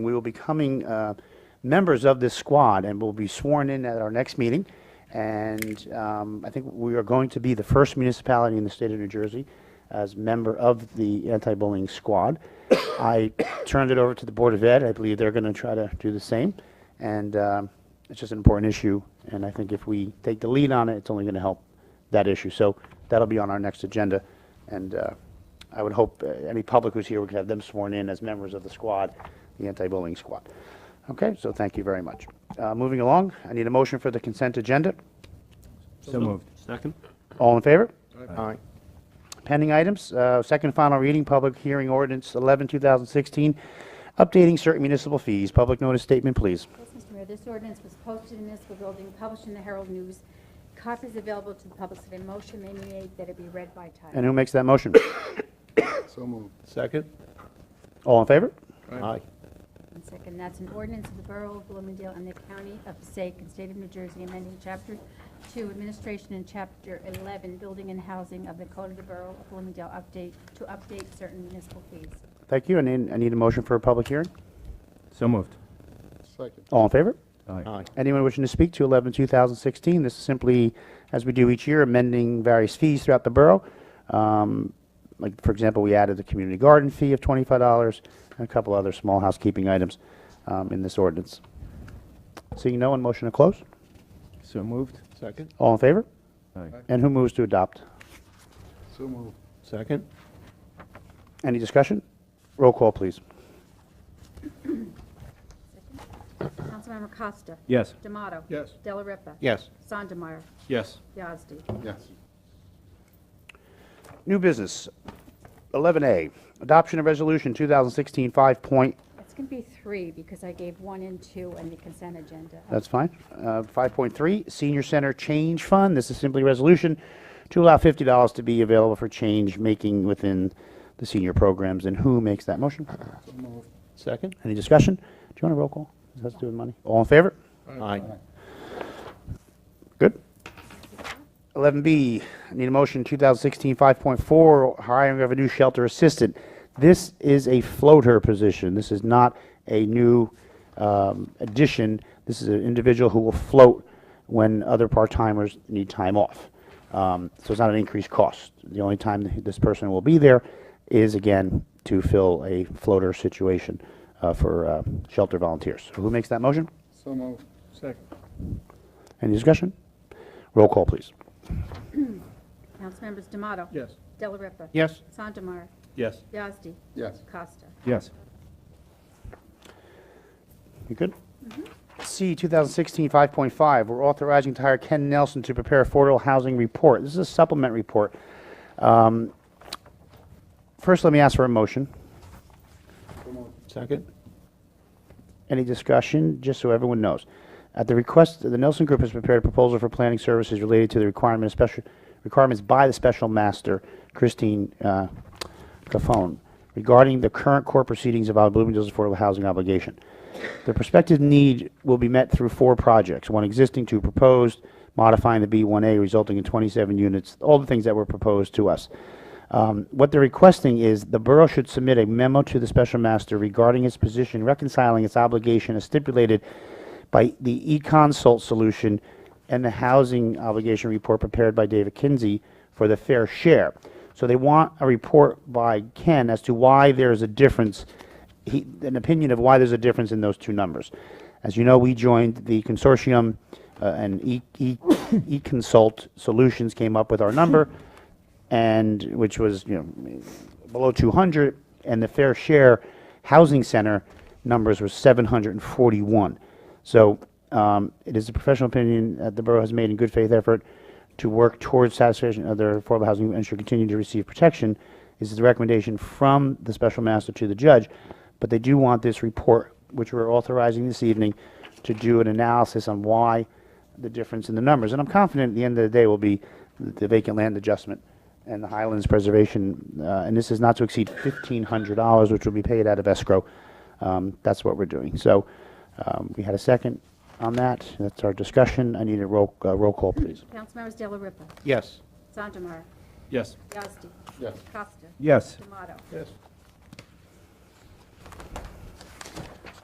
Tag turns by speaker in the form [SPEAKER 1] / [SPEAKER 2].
[SPEAKER 1] We will be coming, uh, members of this squad and will be sworn in at our next meeting. And um, I think we are going to be the first municipality in the state of New Jersey as member of the anti-bullying squad. I turned it over to the Board of Ed. I believe they're going to try to do the same. And um, it's just an important issue. And I think if we take the lead on it, it's only going to help that issue. So that'll be on our next agenda. And uh, I would hope uh, any public who's here, we could have them sworn in as members of the squad, the anti-bullying squad. Okay, so thank you very much. Uh, Moving along, I need a motion for the consent agenda.
[SPEAKER 2] So moved.
[SPEAKER 3] Second?
[SPEAKER 1] All in favor?
[SPEAKER 3] Aye.
[SPEAKER 1] Pending items, uh, second and final reading, public hearing ordinance 11, 2016, updating certain municipal fees. Public notice statement, please.
[SPEAKER 4] Yes, Mr. Mayor, this ordinance was posted in the municipal building, published in the Herald News. Copies available to the public, so a motion may be made that it be read by
[SPEAKER 1] And
[SPEAKER 4] title.
[SPEAKER 1] who makes that motion?
[SPEAKER 2] So moved.
[SPEAKER 3] Second?
[SPEAKER 1] All in favor?
[SPEAKER 3] Aye.
[SPEAKER 4] And second, that's an ordinance of the Borough of Bloomingdale and the County of Passaic and State of New Jersey amending Chapter 2 Administration and Chapter 11 Building and Housing of the Code of the Borough of Bloomingdale update, to update certain municipal fees.
[SPEAKER 1] Thank you. I need, I need a motion for a public hearing.
[SPEAKER 2] So moved.
[SPEAKER 3] Second.
[SPEAKER 1] All in favor?
[SPEAKER 3] Aye.
[SPEAKER 1] Anyone wishing to speak to 11, 2016, this is simply, as we do each year, amending various fees throughout the borough. Um, Like, for example, we added the community garden fee of $25 and a couple other small housekeeping items um, in this ordinance. Seeing no one, motion to close?
[SPEAKER 2] So moved.
[SPEAKER 3] Second?
[SPEAKER 1] All in favor?
[SPEAKER 2] Aye.
[SPEAKER 1] And who moves to adopt?
[SPEAKER 2] So moved.
[SPEAKER 3] Second?
[SPEAKER 1] Any discussion? Roll call, please.
[SPEAKER 4] Councilmember Costa.
[SPEAKER 2] Yes.
[SPEAKER 4] D'Amato.
[SPEAKER 3] Yes.
[SPEAKER 4] Della Ripa.
[SPEAKER 3] Yes.
[SPEAKER 4] Sandemeyer.
[SPEAKER 3] Yes.
[SPEAKER 4] Yazdi.
[SPEAKER 2] Yes.
[SPEAKER 1] New business, 11A, adoption of resolution 2016 5.0.
[SPEAKER 4] It's going to be three, because I gave one and two on the consent agenda.
[SPEAKER 1] That's fine. Uh, 5.3, Senior Center Change Fund. This is simply a resolution to allow $50 to be available for change making within the senior programs. And who makes that motion?
[SPEAKER 3] Second?
[SPEAKER 1] Any discussion? Do you want a roll call? Does that have to do with money? All in favor?
[SPEAKER 3] Aye.
[SPEAKER 1] Good. 11B, I need a motion 2016-5.4, hiring of a new shelter assistant. This is a floater position. This is not a new um, addition. This is an individual who will float when other part-timers need time off. Um, So it's not an increased cost. The only time that this person will be there is, again, to fill a floater situation uh, for uh, shelter volunteers. Who makes that motion?
[SPEAKER 2] So moved. Second.
[SPEAKER 1] Any discussion? Roll call, please.
[SPEAKER 4] Councilmembers D'Amato.
[SPEAKER 2] Yes.
[SPEAKER 4] Della Ripa.
[SPEAKER 1] Yes.
[SPEAKER 4] Sandemeyer.
[SPEAKER 3] Yes.
[SPEAKER 4] Yazdi.
[SPEAKER 2] Yes.
[SPEAKER 4] Costa.
[SPEAKER 2] Yes.
[SPEAKER 1] You good? C, 2016, 5.5, we're authorizing to hire Ken Nelson to prepare affordable housing report. This is a supplement report. Um, First, let me ask for a motion.
[SPEAKER 3] Second?
[SPEAKER 1] Any discussion, just so everyone knows? At the request, the Nelson Group has prepared a proposal for planning services related to the requirement of special, requirements by the special master, Christine uh, Cafone, regarding the current court proceedings about Bloomingdale's affordable housing obligation. The prospective need will be met through four projects, one existing, two proposed, modifying the B1A resulting in 27 units, all the things that were proposed to us. Um, What they're requesting is the borough should submit a memo to the special master regarding its position reconciling its obligation as stipulated by the e-consult solution and the housing obligation report prepared by David Kinsey for the fair share. So they want a report by Ken as to why there is a difference, he, an opinion of why there's a difference in those two numbers. As you know, we joined the consortium, uh, and E- E- e-consult solutions came up with our number and which was you know below 200 and the fair share housing center numbers were 741 so um, it is a professional opinion that the borough has made in good faith effort to work towards satisfaction of their affordable housing and should continue to receive protection this is the recommendation from the special master to the judge but they do want this report which we're authorizing this evening to do an analysis on why the difference in the numbers. And I'm confident at the end of the day will be the vacant land adjustment and the Highlands preservation. uh, And this is not to exceed $1,500, which will be paid out of escrow. Um, That's what we're doing. So um, we had a second on that. That's our discussion. I need a roll, uh, roll call, please.
[SPEAKER 4] Councilmembers Della Ripa.
[SPEAKER 3] Yes.
[SPEAKER 4] Sandemeyer.
[SPEAKER 3] Yes.
[SPEAKER 4] Yazdi.
[SPEAKER 2] Yes.
[SPEAKER 4] Costa.
[SPEAKER 2] Yes.
[SPEAKER 4] D'Amato.
[SPEAKER 3] Yes.